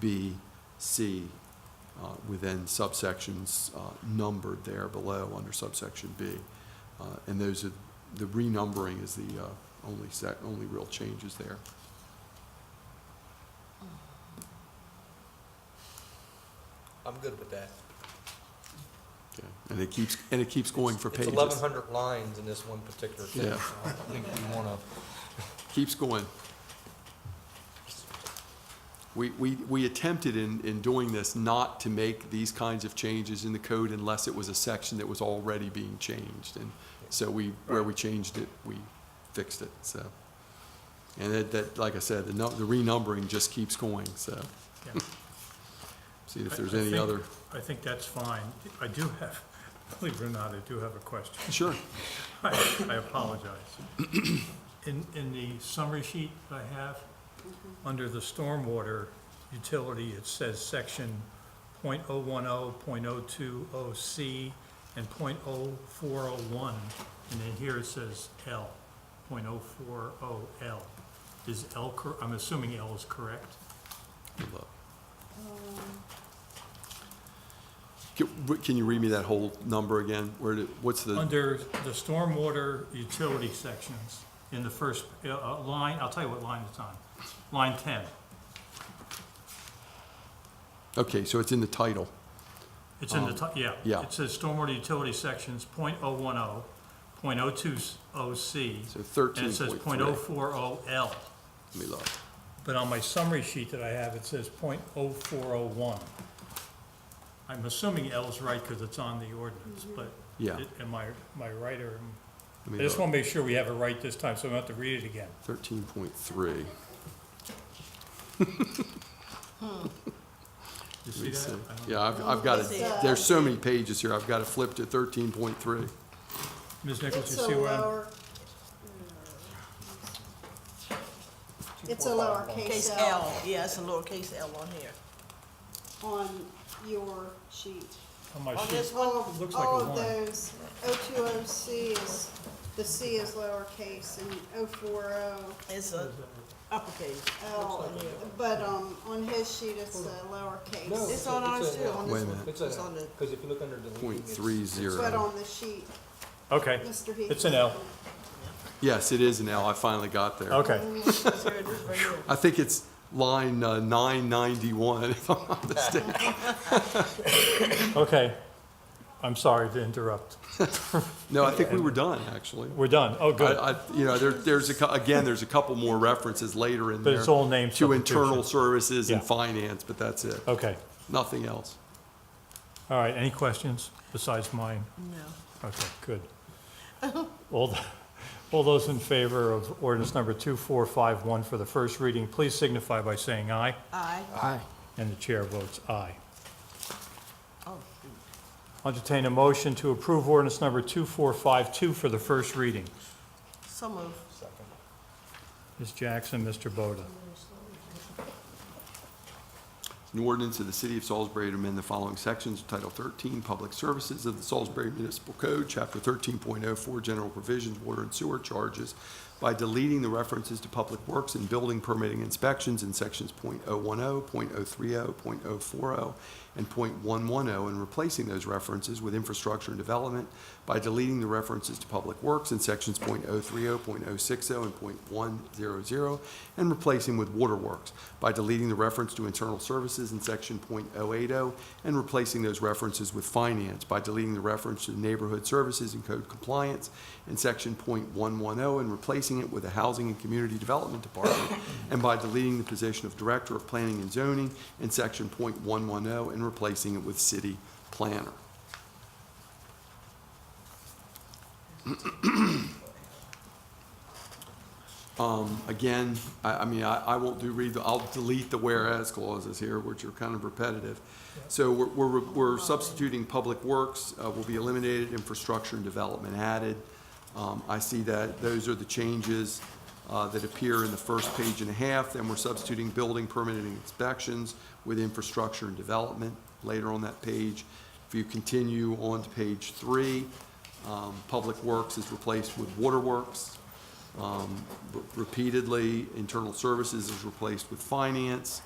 B, C, uh, within subsections uh, numbered there below under subsection B. Uh, And those are, the renumbering is the uh, only sec, only real changes there. I'm good with that. Okay. And it keeps, and it keeps going for It's pages. eleven hundred lines in this one particular thing. Yeah. so I think we wanna, keeps going. We, we, we attempted in, in doing this not to make these kinds of changes in the code unless it was a section that was already being changed. And so we, where we changed it, we fixed it, so. And that, that, like I said, the nu, the renumbering just keeps going, so. Yeah. See if there's I- I any think- other, I think that's fine. I do have, believe it or not, I do have a question. sure, I I apologize. In, in the summary sheet I have, under the stormwater utility, it says section .010, .020 C, and .0401, and then here it says L, .040 L. Is L, cor- I'm assuming L is correct? Good luck. Can, can you read me that whole number again? Where did, what's the? Under the stormwater utility sections, in the first uh, uh, line, I'll tell you what line it's on, line 10. Okay, so it's in the title. It's in the, ti- yeah. Oh. yeah. It says stormwater utility sections, .010, .020C, So and it thirteen says point three. .040L. Let me look. But on my summary sheet that I have, it says .0401. I'm assuming L's right because it's on the ordinance, but Yeah. it- am I, am I right or? am- Let I me just want look. to make sure we have it right this time, so I don't have to read it again. Thirteen point three. You see that? I don't- Yeah, I've, I've got Is it. it- There's so many pages here. I've got it flipped to thirteen point three. Ms. Nichols, It's you a see where I'm? lower, it's a four, five, lowercase Mm. Case L L, yeah, it's a lowercase L on here. on your sheet. On my On sheet. this All It of, looks like all a of one. those, O two O C is, the C is lowercase and O four O It's a uppercase. L. Looks like a- But, um, on his sheet it's a lowercase, It's on ours too, on Wait a this one. minute. It's on the, Cause if you look under deleting, Point it's. three but zero. on the sheet, Okay, Mr. Heath. It's an L. Yes, it is an L. I finally got there. okay. it's here, it is right here. I think it's line uh, nine ninety-one, if I'm not mistaken. Okay, I'm sorry to interrupt. No, I think we were done, actually. We're done, oh, I, good. I, you know, there, there's a, cou- again, there's a couple more references later in there. But it's all name To internal substitution. services and Yeah. finance, but that's it. Okay, Nothing else. all right, any questions besides mine? No. Okay, good. All, th- all those in favor of ordinance number 2451 for the first reading, please signify by saying aye, I, and the chair votes aye. oh, shoot. Entertain a motion to approve ordinance number 2452 for the first reading. so moved. Ms. Jackson, Mr. Boda. An ordinance of the City of Salisbury to amend the following sections, Title 13, Public Services of the Salisbury Municipal Code, Chapter 13.04, General Provisions, Water and Sewer Charges, by deleting the references to public works and building permitting inspections in sections .010, .030, .040, and .110, oh, and replacing those references with infrastructure and development by deleting the references to public works in sections .030, .060, and .100, and replacing with waterworks by deleting the reference to internal services in section .080 and replacing those references with finance by deleting the reference to neighborhood services and code compliance in section .110 and replacing it with the Housing and Community Development Department and by deleting the position of Director of Planning and Zoning in section .110 and replacing it with City Planner. Um, Again, I, I mean, I, I won't do read, the- I'll delete the whereas clauses here, which are kind of repetitive. So we're, we're, we're substituting public works, uh, will be eliminated, infrastructure and development added. Um, I see that, those are the changes, uh, that appear in the first page and a half, then we're substituting building permitting inspections with infrastructure and development later on that page. If you continue on to page three, um, public works is replaced with waterworks um, re- repeatedly. Internal services is replaced with finance.